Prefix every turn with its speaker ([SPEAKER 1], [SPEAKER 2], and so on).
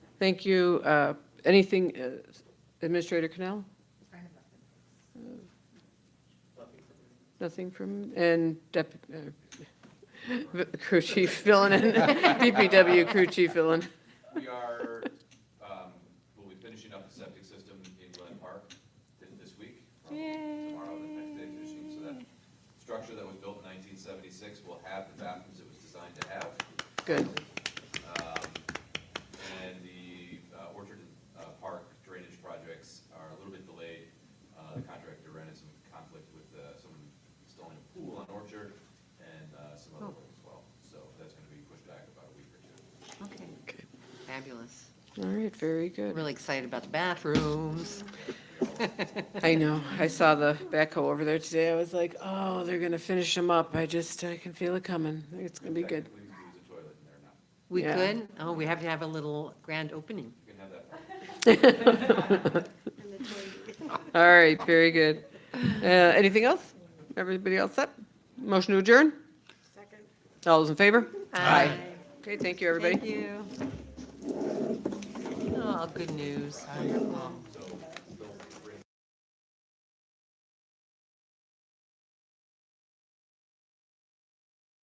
[SPEAKER 1] Thank you. Uh, Anything, uh, Administrator Canal? Nothing from, and Dep- uh, Crew Chief Villain, DPW Crew Chief Villain.
[SPEAKER 2] We are, um, we'll be finishing up the septic system in Glen Park thi- this week. probably Tomorrow, the next day finishing, so that structure that was built in nineteen seventy-six will have the bathrooms it was designed to have.
[SPEAKER 1] Good.
[SPEAKER 2] Um, And the uh, Orchard uh, Park drainage projects are a little bit delayed. Uh, The contractor ran into some conflict with uh, someone installing a pool on Orchard and uh, some other
[SPEAKER 1] Oh.
[SPEAKER 2] work as well. So that's gonna be pushed back about a week or two.
[SPEAKER 3] Okay, fabulous.
[SPEAKER 1] All right, very good.
[SPEAKER 3] Really excited about the bathrooms.
[SPEAKER 1] I know, I saw the backhoe over there today. I was like, oh, they're going to finish them up. I just, I can feel it coming. It's going to be good.
[SPEAKER 2] Technically, we use a toilet in there now.
[SPEAKER 3] We
[SPEAKER 1] Yeah.
[SPEAKER 3] could, oh, we have to have a little grand opening.
[SPEAKER 2] You can have that.
[SPEAKER 1] All right, very good. Uh, Anything else? Everybody else set? Motion to adjourn?
[SPEAKER 4] Second.
[SPEAKER 1] All those in favor?
[SPEAKER 3] Aye.
[SPEAKER 1] Okay, thank you, everybody.
[SPEAKER 3] Thank you. Oh, good news, wonderful.